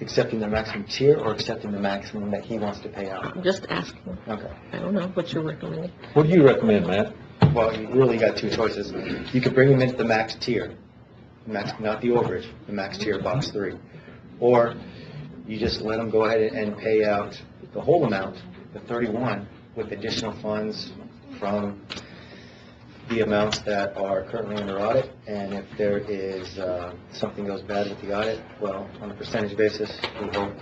accepting the maximum tier or accepting the maximum that he wants to pay out? I'm just asking. Okay. I don't know what you're recommending. What do you recommend, Matt? Well, you really got two choices. You could bring him into the max tier, max, not the overage, the max tier, box three. Or you just let him go ahead and pay out the whole amount, the thirty-one, with additional funds from the amounts that are currently under audit. And if there is, uh, something goes bad with the audit, well, on a percentage basis, we hope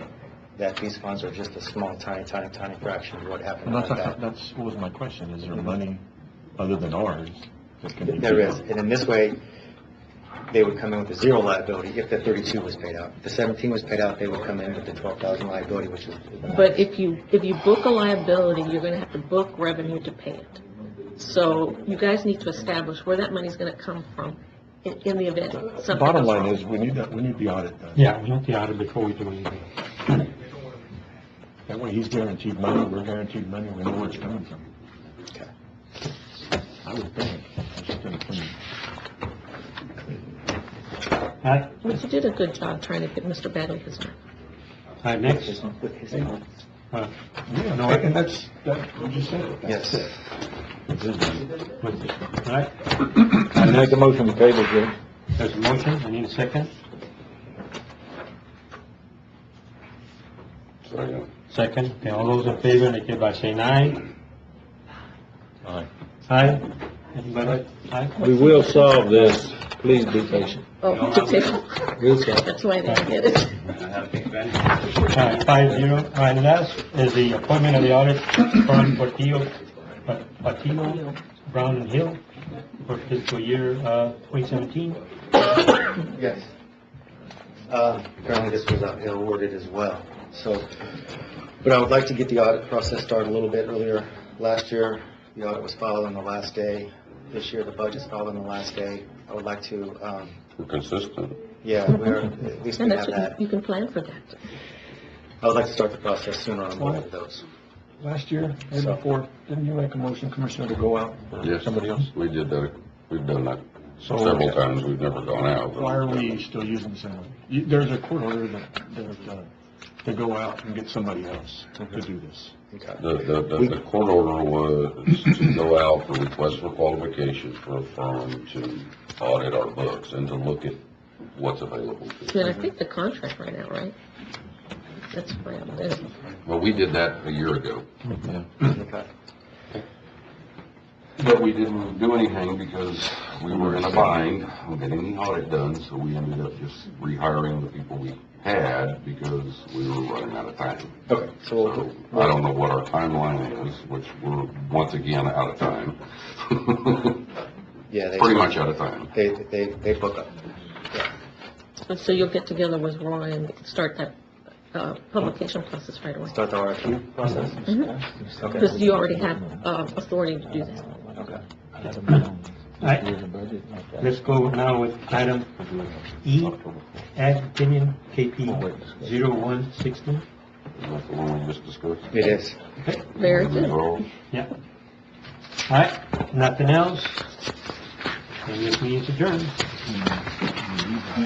that these funds are just a small, tiny, tiny, tiny fraction of what happened on that. that's, was my question, is there money other than ours that can There is, and in this way, they would come in with a zero liability if the thirty-two was paid out. If the seventeen was paid out, they would come in with the twelve thousand liability, which is. But if you, if you book a liability, you're gonna have to book revenue to pay it. So you guys need to establish where that money's gonna come from in, in the event something Bottom goes line wrong. is, we need, that- we need the audit done. Yeah, we want the audit before we do anything. That way he's guaranteed money, we're guaranteed money, we know where it's coming from. Okay. I would think. That's just an opinion. All right, But you did a good job trying to get Mr. Bagley his money. all right, next. With his funds. Uh, Yeah, no, I- and that's, that, you just said it. Yes. what's this one? All right, I make a motion to table, Jim. there's a motion, I need a second. Second, okay, all those in favor, indicate by saying aye. Aye. Aye? Anybody? Aye? We will solve this. Please be patient. Oh, to table. We'll solve. That's why I didn't get it. All right, Uh, five zero, all right, last is the appointment of the audit firm Portillo, Patino, Brown and Hill for fiscal year, uh, twenty seventeen. Yes. Uh, Apparently this was out awarded as well, so, but I would like to get the audit process started a little bit earlier. Last year, the audit was filed on the last day. This year, the budget's filed on the last day. I would like to, um, Consistent. yeah, we're, at least we And have that's, that. what you you can plan for that. I would like to start the process sooner on one of those. Last year, and before, didn't you make a motion, Commissioner, to go out for Yes. somebody else? We did that, we've done that So- several times, we've never gone out. Why are we still using someone? You- There's a court order that, that, uh, to go out and get somebody else to do this. Okay. The, the, the- the court order was to go out for requests for qualifications for a firm to audit our books and to look at what's available. to And I us. think the contract right now, right? That's why I'm there. Well, we did that a year ago. Okay. But we didn't do anything because we were in a bind on getting the audit done, so we ended up just rehiring the people we had because we were running out of time. Okay, so So we'll- I don't know what our timeline is, which we're once again out of time. yeah, they, Pretty much out of time. they, they, they book up. And so you'll get together with Roy and start that, uh, publication process right away. Start the RFQ process? Okay. Because you already have, uh, authority to do that. Okay. All right, let's go now with item E, Ag opinion KP zero one sixteen. Is that the one we just discussed? It is. Very good. Resolve. Yeah. All right, nothing else? And this meeting's adjourned.